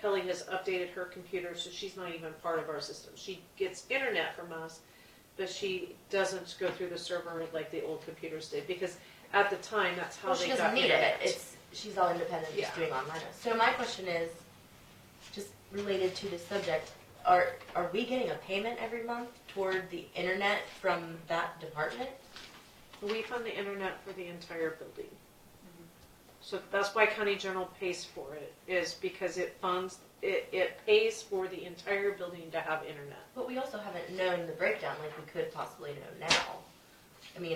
Kelly has updated her computer, so she's not even part of our system. She gets internet from us, but she doesn't go through the server like the old computers did, because at the time, that's how Well, they she got doesn't need it. internet. It's, she's all independent, Yeah. just doing online. So my question is, just related to this subject, are, are we getting a payment every month toward the internet from that department? We fund the internet for the entire building. Mm-hmm. So that's why county general pays for it, is because it funds, it, it pays for the entire building to have internet. But we also haven't known the breakdown like we could possibly know now. I mean,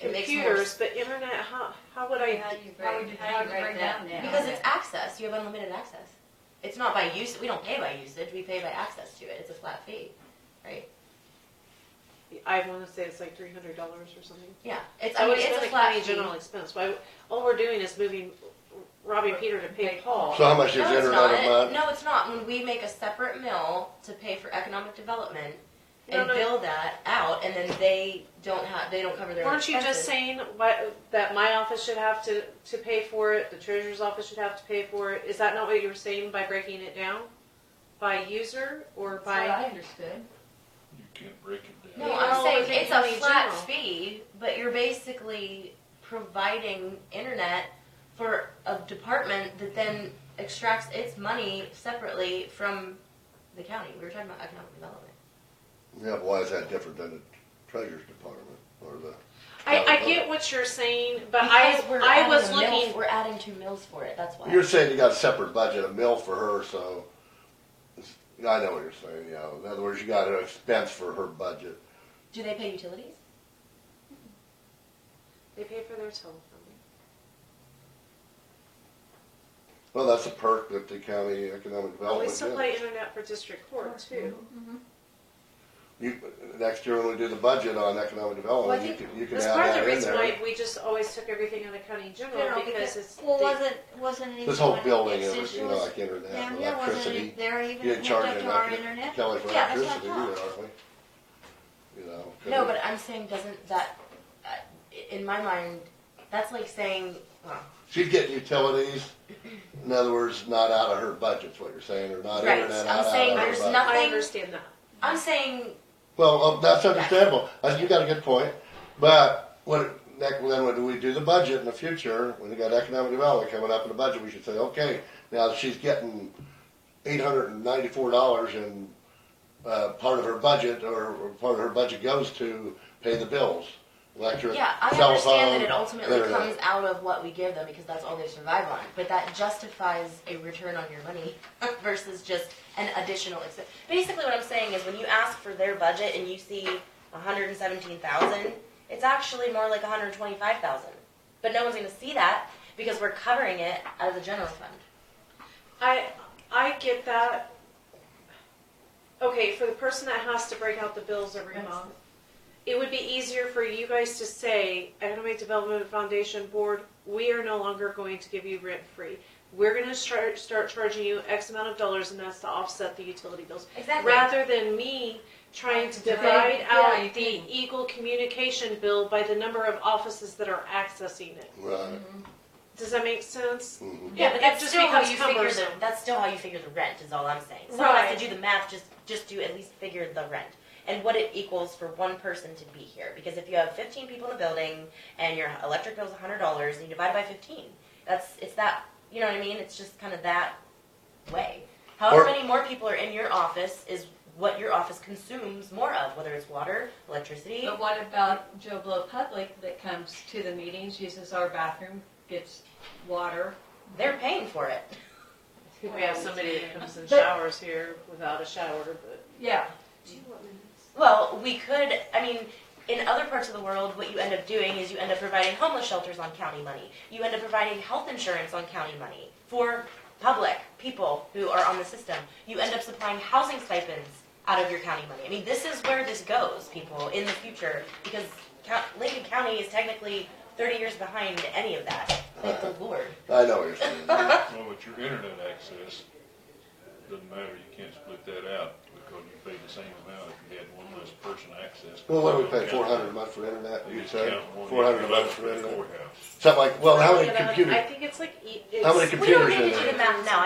it makes more Computers, but internet, how, how would I? How do you How would break, you- how do you break down that? that? Because it's access, you have unlimited access. It's not by use, we don't pay by usage, we pay by access to it, it's a flat fee, right? I want to say it's like three hundred dollars or something. Yeah, it's, I So mean, Oh, it's it's not a a flat county fee. general expense. Why, all we're doing is moving Robbie Peter to pay Paul. So how much is No, it's internet not, a month? no, it's not, when we make a separate mill to pay for economic development No, and no. bill that out, and then they don't have, they don't cover their own Weren't you expenses. just saying what, that my office should have to, to pay for it, the treasurer's office should have to pay for it? Is that not what you were saying by breaking it down? By user or That's what I by? understood. You can't break it down. No, Yeah, I'm no, saying it's in it's a county flat general. fee, but you're basically providing internet for a department that then extracts its money separately from the county. We were talking about economic development. Yeah, but why is that different than the treasurer's department or the? I, I Probably. get what you're saying, but I, Because we're I adding was a mill- looking, We're adding two mills for it, that's why. You're saying you got a separate budget, a mill for her, so, it's- I know what you're saying, yeah. In other words, you got an expense for her budget. Do they pay utilities? they pay for their telephone. Well, that's a perk that the county economic Well, we development still pay gives. internet for district court too. You, next year when we do the budget on economic Well, I development, you think can, you can That's add part of the that in reason why there. we just always took everything out of county General, general because because- it's. Well, the- wasn't, wasn't it? This whole even- building, it's it was, just- you know, like internet, Down and here, wasn't electricity. it there even You didn't hooked charge up to our enough internet? Kelly for Yeah, that's what I electricity either, aren't we? You know. 'cause No, it- but I'm saying doesn't that, uh, i- in my mind, that's like saying, well, She'd get utilities, in other words, not out of her budget's what you're saying, or not Right, internet I'm out saying of her there's budget. nothing- I understand that. I'm saying, Well, um, that's understandable. Uh, You got a good point, but when then when we do the budget in the future, when we got economic development coming up in the budget, we should say, okay, now she's getting eight hundred and ninety-four dollars and uh, part of her budget or, or part of her budget goes to pay the bills, electric, yeah, I cell understand phone, that it ultimately internet. comes out of what we give them because that's all they survive on. But that justifies a return on your money versus just an additional expense. Basically, what I'm saying is when you ask for their budget and you see 117,000, it's actually more like 125,000. But no one's going to see that because we're covering it out of the general fund. I I get that. Okay, for the person that has to break out the bills every That's- month, it would be easier for you guys to say, Economic Development Foundation Board, we are no longer going to give you rent free. We're going to start start charging you X amount of dollars, and that's to offset the utility bills. Exactly. Rather than me trying to Divide- divide yeah, you out the can. Eagle communication bill by the number of offices that are accessing it. Right. Does that make sense? Mhm. Yeah, It- but it that's just still how becomes you figure the, cumbersome. that's still how you figure the rent is all I'm saying. So I have Right. to do the math, just, just do at least figure the rent and what it equals for one person to be here. Because if you have fifteen people in a building and your electric bill's a hundred dollars and you divide by fifteen, that's, it's that, you know what I mean? It's just kind of that way. However Or- many more people are in your office is what your office consumes more of, whether it's water, electricity. But what about Joe Blow Public that comes to the meetings, uses our bathroom, gets water? They're paying for it. We have somebody that comes and But- showers here without a shower, but. Yeah, Well, we could, I mean, in other parts of the world, what you end up doing is you end up providing homeless shelters on county money. You end up providing health insurance on county money for public people who are on the system. You end up supplying housing stipends out of your county money. I mean, this is where this goes, people, in the future, because Cou- Lincoln County is technically 30 years behind any of that. Thank the Lord. I know what you're saying. Well, with your internet access, doesn't matter, you can't split that out because you pay the same amount if you had one less person access. Well, what do we pay, four hundred a month for internet, They you just said? count one Four hundred a each month for for the internet? courthouse. Something like, well, how many But I computers? think it's like. e- How many it's- We don't Computers need to in do the there. math now.